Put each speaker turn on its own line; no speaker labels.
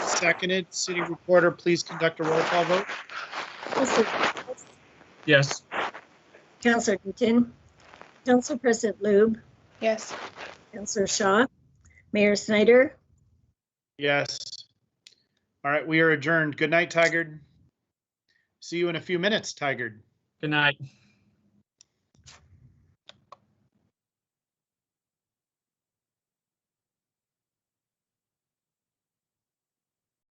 seconded. City reporter, please conduct a roll call vote.
Counselor Thomas,
Yes.
Counselor Newton, Council President Lube,
Yes.
Counselor Shaw, Mayor Snyder,
Yes. All right, we are adjourned. Good night, Tigard. See you in a few minutes, Tigard.
Good night.